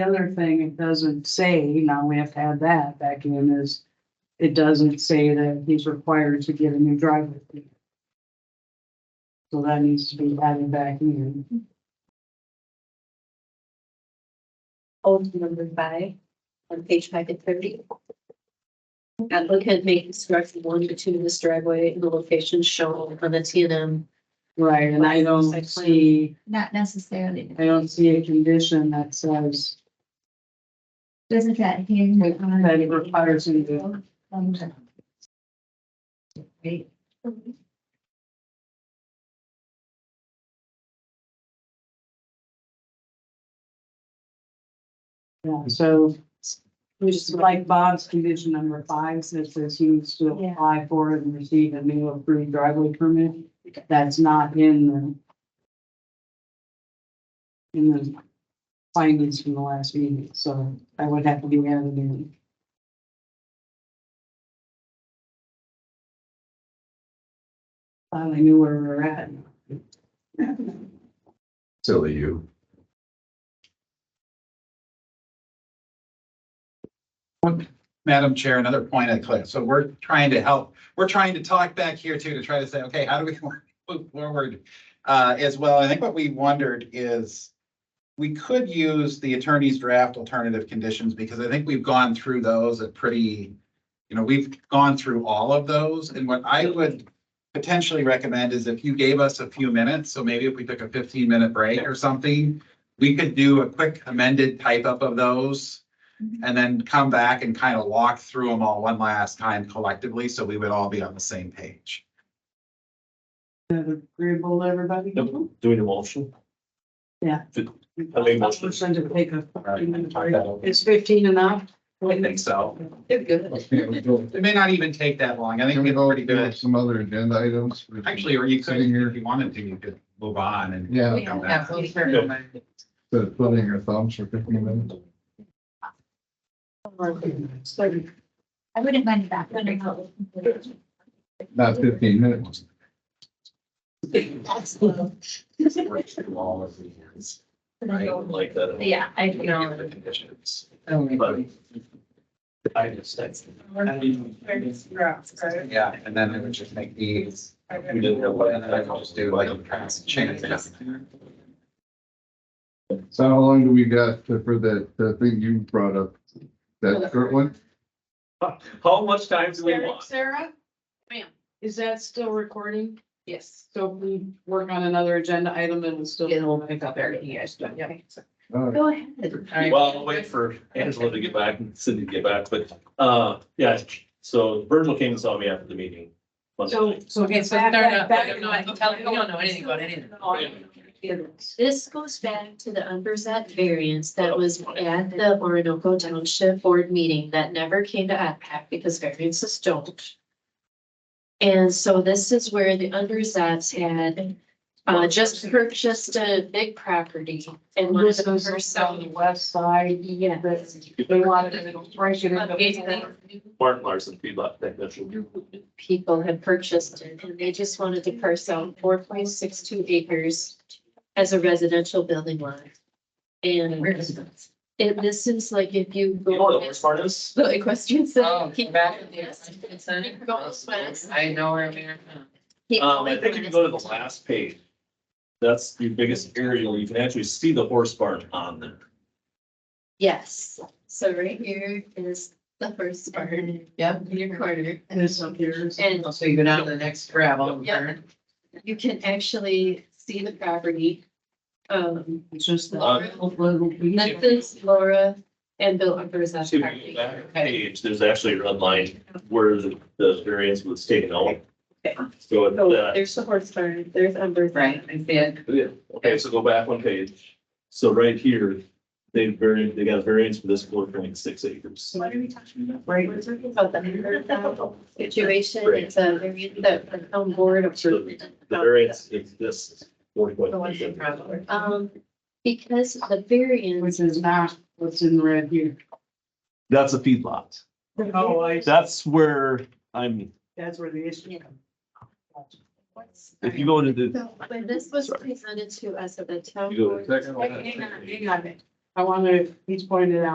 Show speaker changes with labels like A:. A: other thing it doesn't say, now we have to add that back in is, it doesn't say that he's required to get a new driver. fee. So that needs to be added back in.
B: old number five on page five and thirty. Applicant may construct one to two of this driveway in the location shown on the T and M.
A: Right, and I don't see,
C: Not necessarily.
A: I don't see a condition that says
C: Doesn't that hinge on?
A: that it requires him to-
C: Right.
A: Yeah, so which is like Bob's condition number five, says says he needs to
C: Yeah.
A: apply for it and receive a new approved driveway permit. That's not in the in the findings from the last meeting, so I would have to be added in. Finally knew where we were at.
D: Silly you.
E: Madam Chair, another point of clarity. So we're trying to help, we're trying to talk back here too, to try to say, okay, how do we move forward? Uh, as well, I think what we wondered is we could use the attorney's draft alternative conditions because I think we've gone through those at pretty, you know, we've gone through all of those. And what I would potentially recommend is if you gave us a few minutes, so maybe if we took a fifteen minute break or something, we could do a quick amended type up of those and then come back and kind of walk through them all one last time collectively, so we would all be on the same page.
A: Agreeable, to everybody?
F: Doing a motion?
A: Yeah.
F: I made a motion.
A: Motion to take a
F: Alright,
A: Is fifteen enough?
F: I think so.
B: They're good.
D: Can
E: It may not even take that long. I think
D: we
E: it's
D: go
E: already
D: do
E: good.
D: some other agenda items?
E: Actually, or you could,
D: Sitting here.
E: if you wanted to, you could move on and.
D: Yeah,
E: come back.
D: instead of twiddling your thumbs for fifteen minutes.
C: I wouldn't mind that.
D: Not fifteen minutes.
C: That's low.
E: Work through all of these.
F: I don't like that. at all.
C: Yeah, I
E: Give
C: know.
E: the conditions.
F: But I just, that's,
E: Yeah, and then I would just make these.
F: we didn't have what,
E: And then
F: I
E: I could just do like a trans- change.
D: So how long do we got to- for that, the thing you brought up? That short one?
F: how much time do we want?
A: Sarah?
B: Ma'am.
A: Is that still recording?
B: Yes.
A: So if we work on another agenda item, it'll still.
B: It'll pick up everything you guys done. Yeah.
D: Uh,
B: Go ahead.
F: Well, I'll wait for Angela to get back and Cindy to get back, but, uh, yeah, so Virgil came and saw me after the meeting. Monday
A: So,
F: night.
A: so.
G: Okay, so
A: back-
G: they're not-
A: back- Oh,
G: they're not telling- we don't know anything about any of
A: It's-
B: This goes back to the unversat variance that was at the Orinoco Township Board meeting that never came to IPAC because variances don't. And so this is where the unversats had uh just purchased a big property and wanted
A: This
B: to
A: goes on the
B: person.
A: west side,
B: Yeah.
A: but they wanted to break it into.
F: Martin Larson, feedlot technician.
B: People had purchased it and they just wanted to parse out four point six two acres as a residential building lot. And it, this is like if you
F: You know what the
B: go.
F: worst part is?
B: The equestrian
G: Oh,
B: center. keep
G: back
B: going
G: at the
B: west,
G: equestrian center?
B: keep going west,
G: I know where we are.
B: keep
F: Um, I
B: going
F: think if you go to the
B: west.
F: last page, that's the biggest aerial, you can actually see the horse barn on there.
B: Yes, so right here is the first barn,
G: Yep.
B: your corner.
A: This up here. is-
B: And
G: So you go down to the next gravel.
B: Yeah.
G: turn.
B: you can actually see the property. Um,
A: It's just. that
F: Uh,
A: little piece.
B: this is Laura and Bill Upper's
F: See, when
B: property.
F: you go back page, there's actually a red line where the, the variance was taken out.
B: Okay.
F: So
B: So
F: it's that.
B: Oh, there's the horse barn, there's Umber's.
G: Right, I see it.
F: Yeah, okay, so go back one page. So right here, they varied, they got a variance for this four point six acres.
B: What are we talking about?
A: Right.
B: We're talking about the hundred thousand situation, it's a, variance that the town board
F: So the
B: approved.
F: variance is this four point
G: The one
F: six.
G: in gravel.
B: Um, because the variance,
A: Which is not what's in red here.
F: That's a feedlot.
A: I.
F: That's where I'm,
A: That's where the issue comes.
F: if you go to the,
B: so when this was presented to us at the town
F: You go to
B: board.
F: the second
A: Hang on, hang on. I wanna, he's pointed out